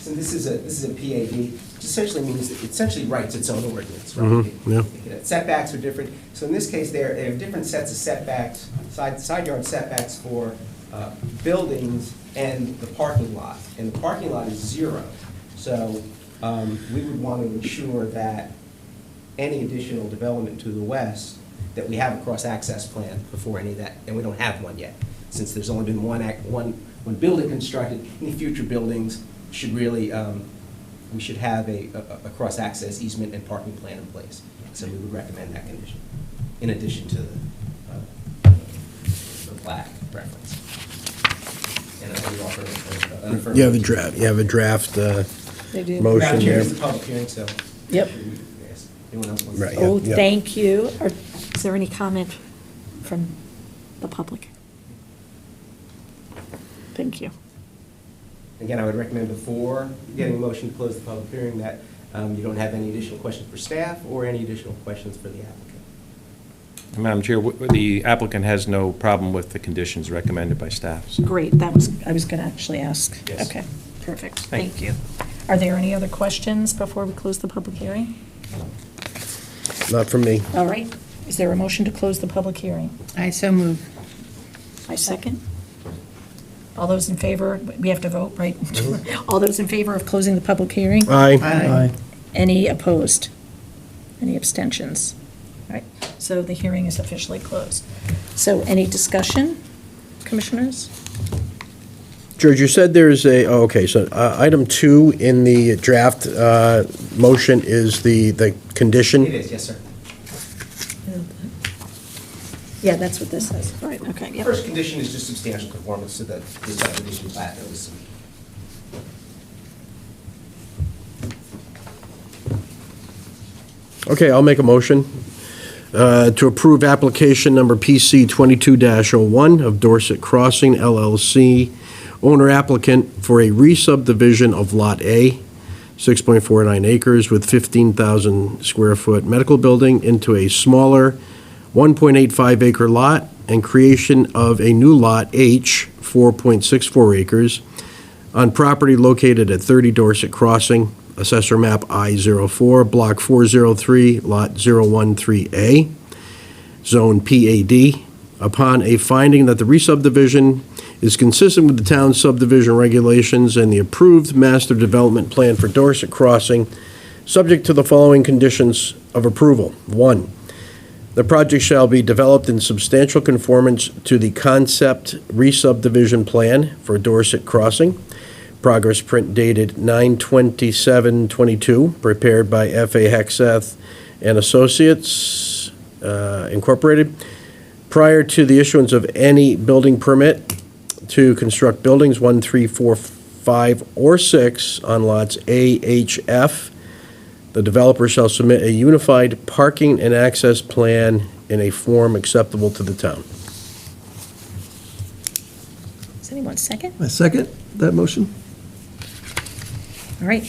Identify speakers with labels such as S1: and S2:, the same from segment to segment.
S1: So this is a, this is a PAD, which essentially means, it essentially writes its own ordinance, right?
S2: Mhm, yeah.
S1: Setbacks are different, so in this case, there, there are different sets of setbacks, side, side yard setbacks for uh, buildings and the parking lot. And the parking lot is zero, so um, we would want to ensure that any additional development to the west, that we have a cross-access plan before any of that, and we don't have one yet, since there's only been one, act- one, one building constructed. Any future buildings should really, um, we should have a, a- a cross-access easement and parking plan in place. So we would recommend that condition, in addition to the, uh, the black preference. And I would offer a- a- an affirmative.
S2: You have a draft, you have a draft, uh,
S3: They do.
S2: Motion
S1: Uh, Madam Chair,
S2: there.
S1: this is a public hearing, so.
S3: Yep.
S1: Yes, Anyone else wants to?
S2: Right, yeah.
S3: Oh, thank you. Are- Is there any comment from the public? Thank you.
S1: Again, I would recommend before getting a motion to close the public hearing that um, you don't have any additional questions for staff or any additional questions for the applicant.
S4: Madam Chair, wh- the applicant has no problem with the conditions recommended by staff. so-
S3: Great, that was, I was going to actually ask.
S4: Yes.
S3: Okay, perfect.
S4: Thank
S3: Thank you. Are there any other questions before we close the public hearing?
S2: not for me.
S3: All right. Is there a motion to close the public hearing?
S5: I so move.
S3: I second. All those in favor, we have to vote, right? All those in favor of closing the public hearing?
S2: Aye.
S3: Any opposed? Any abstentions? All right, so the hearing is officially closed. So any discussion, commissioners?
S2: George, you said there's a, oh, okay, so uh, item two in the draft uh, motion is the, the condition?
S1: It is, yes, sir.
S3: Yeah, that's what this says. All right, okay, yep.
S1: First condition is just substantial conformance to the the subdivision plat that was submitted.
S2: Okay, I'll make a motion uh, to approve application number PC 22-01 of Dorset Crossing LLC, owner applicant for a re-subdivision of Lot A, 6.49 acres with 15,000 square foot medical building into a smaller 1.85 acre lot and creation of a new Lot H, 4.64 acres, on property located at 30 Dorset Crossing, Assessor Map I-04, Block 403, Lot 013A, Zone PAD, upon a finding that the re-subdivision is consistent with the town's subdivision regulations and the approved master development plan for Dorset Crossing, subject to the following conditions of approval. One, the project shall be developed in substantial conformance to the concept re-subdivision plan for Dorset Crossing. Progress print dated 9/27/22, prepared by F.A. Hexeth and Associates uh, Incorporated, prior to the issuance of any building permit to construct buildings 1, 3, 4, 5, or 6 on lots A, H, F. The developer shall submit a unified parking and access plan in a form acceptable to the town.
S3: Does anyone second?
S6: I second that motion.
S3: All right.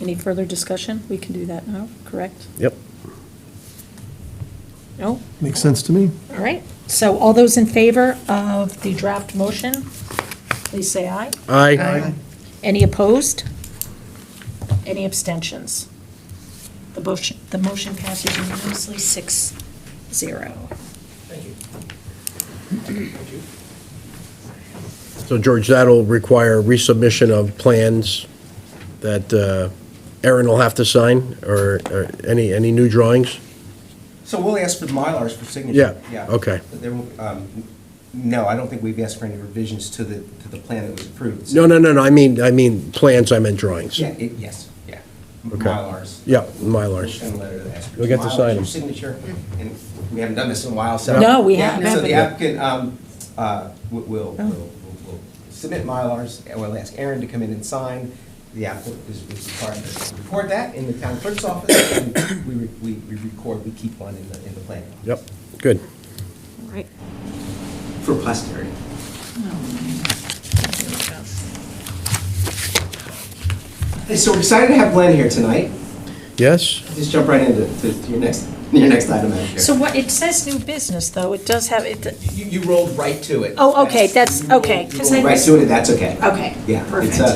S3: Any further discussion? We can do that now, correct?
S2: Yep.
S3: No?
S6: Makes sense to me.
S3: All right, so all those in favor of the draft motion, please say aye.
S2: Aye.
S3: Any opposed? Any abstentions? The motion, the motion passes unanimously, six, zero.
S1: Thank you.
S2: So George, that'll require resubmission of plans that uh, Aaron will have to sign, or or any, any new drawings?
S1: So we'll ask for the Mylars for
S2: Yeah,
S1: signature.
S2: okay.
S1: But there won't- um, No, I don't think we've asked for any revisions to the, to the plan that was approved. so-
S2: No, no, no, no, I mean, I mean, plans, I meant drawings.
S1: Yeah, it- yes, yeah.
S2: Okay.
S1: Mylars.
S2: Yeah, Mylars.
S1: Send a letter to the applicant.
S2: You'll get to
S1: Mylars,
S2: sign 'em.
S1: your signature, and we haven't done this in a while, so.
S3: No, we
S1: Yeah,
S3: haven't.
S1: So the applicant, um, uh, w- will,
S2: Oh.
S1: will, will will submit Mylars, and we'll ask Aaron to come in and sign. The applicant is is required to record that in the town clerk's office, and we, re- we, we record, we keep one in the, in the plan.
S2: Yep, good.
S3: All right.
S1: For posterity. Hey, so we're excited to have Glenn here tonight.
S2: Yes?
S1: Just jump right into, to to your next, your next item, Madam Chair.
S3: So what, it says new business, though, it does have, it,
S1: You, you rolled right to it.
S3: oh, okay, that's, okay.
S1: You
S3: 'cause
S1: rolled
S3: I
S1: right
S3: was-
S1: to it, and that's okay.
S3: Okay,
S1: Yeah, it's,
S3: perfect.
S1: uh,